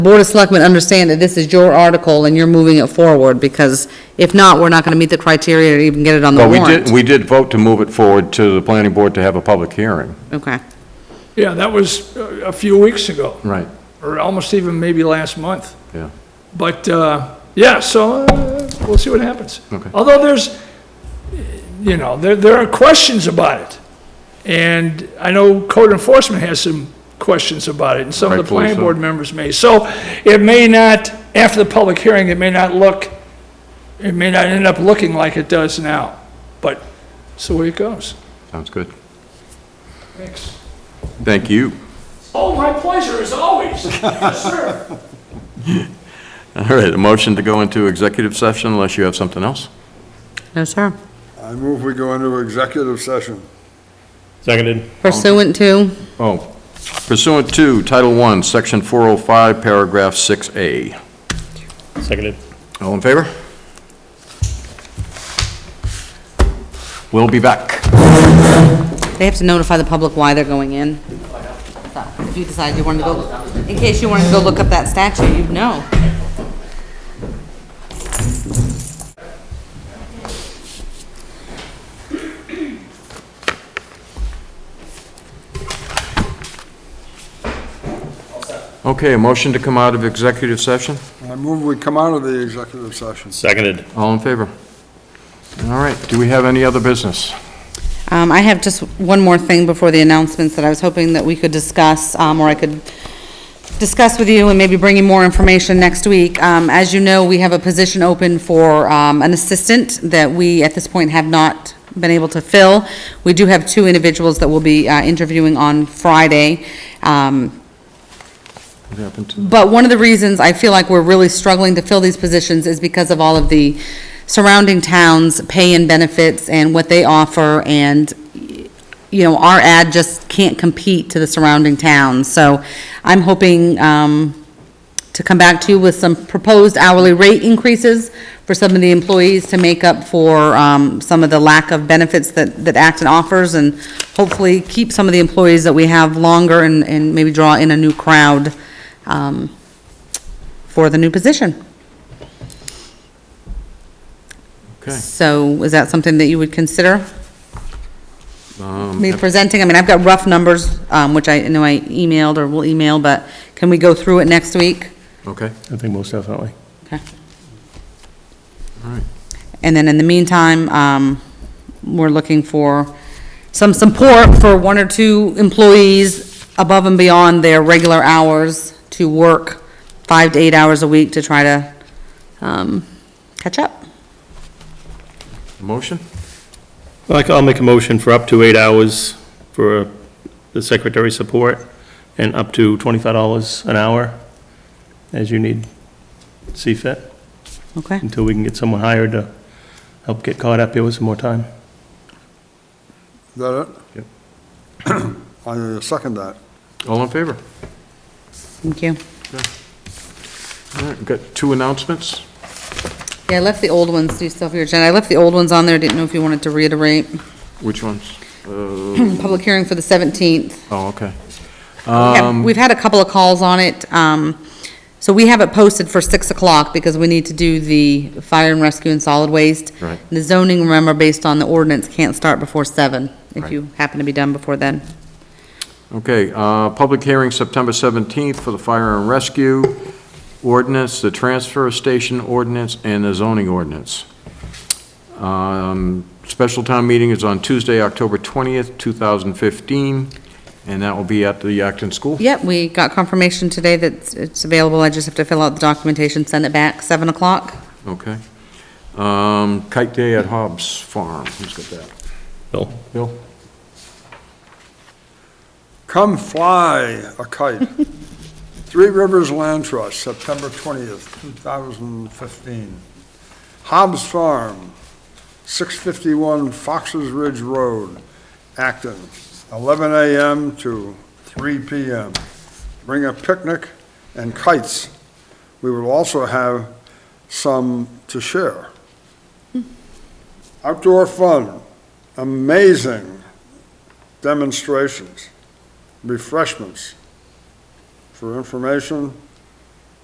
Board of Selectmen understand that this is your article and you're moving it forward, because if not, we're not gonna meet the criteria to even get it on the But we did, warrant. we did vote to move it forward to the planning board to have a public hearing. Okay, Yeah, that was uh, a few weeks ago, Right. or almost even maybe last month. Yeah. But, uh, yeah, so uh, we'll see what happens. Okay. Although there's, you know, there, there are questions about it. And I know code enforcement has some questions about it, and some of the Rightfully planning so. board members may. So it may not, after the public hearing, it may not look, it may not end up looking like it does now. But, so way it goes. Sounds good. Thanks. Thank you. Oh, my pleasure, as always. Yes, sir. All right, a motion to go into executive session unless you have something else? no, sir. I move we go into executive session. Seconded. Pursuant to, Oh, pursuant to Title I, Section 405, Paragraph 6A. Seconded. All in favor? We'll be back. they have to notify the public why they're going in. So, If you decide you wanted to go, in case you wanted to go look up that statute, you'd know. Okay, a motion to come out of executive session? I move we come out of the executive session. Seconded. All in favor? All right, do we have any other business? Um, I have just one more thing before the announcements that I was hoping that we could discuss, um, or I could discuss with you and maybe bring you more information next week. Um, as you know, we have a position open for, um, an assistant that we, at this point, have not been able to fill. We do have two individuals that we'll be, uh, interviewing on Friday. Um, What happened to? but one of the reasons I feel like we're really struggling to fill these positions is because of all of the surrounding towns' pay and benefits and what they offer, and, you know, our ad just can't compete to the surrounding towns. So I'm hoping um, to come back to you with some proposed hourly rate increases for some of the employees to make up for um, some of the lack of benefits that, that Acton offers, and hopefully keep some of the employees that we have longer and, and maybe draw in a new crowd um, for the new position. Okay. So is that something that you would consider? Me presenting, I mean, I've got rough numbers, um, which I know I emailed or will email, but can we go through it next week? Okay, I think most definitely. Okay. all right. And then in the meantime, um, we're looking for some support for one or two employees above and beyond their regular hours to work five to eight hours a week to try to, um, catch up. Motion? Like, I'll make a motion for up to eight hours for the secretary support and up to twenty-five dollars an hour as you need, see fit, Okay? until we can get someone hired to help get caught up here with some more time. Is that it? Yep. I second that. All in favor? Thank you. All right, we've got two announcements. Yeah, I left the old ones, do you still have your agenda? I left the old ones on there, didn't know if you wanted to reiterate. Which ones? Public hearing for the 17th. Oh, okay. Um, Yeah, We've had a couple of calls on it. um, So we have it posted for 6 o'clock because we need to do the fire and rescue and solid waste. Right. The zoning, remember, based on the ordinance, can't start before 7, if Right. you happen to be done before then. Okay, uh, public hearing September 17th for the fire and rescue ordinance, the transfer station ordinance, and the zoning ordinance. Um, Special town meeting is on Tuesday, October 20th, 2015, and that will be at the Acton School. Yep, we got confirmation today that it's- it's available. I just have to fill out the documentation, send it back, 7 o'clock. Okay. Um, Kite Day at Hobbs Farm, who's got that? Bill? Bill? Come fly a kite. Three Rivers Land Trust, September 20th, 2015. Hobbs Farm, 651 Foxes Ridge Road, Acton, 11 a.m. to 3 p.m. Bring a picnic and kites. We will also have some to share. Outdoor fun, amazing demonstrations refreshments. For information,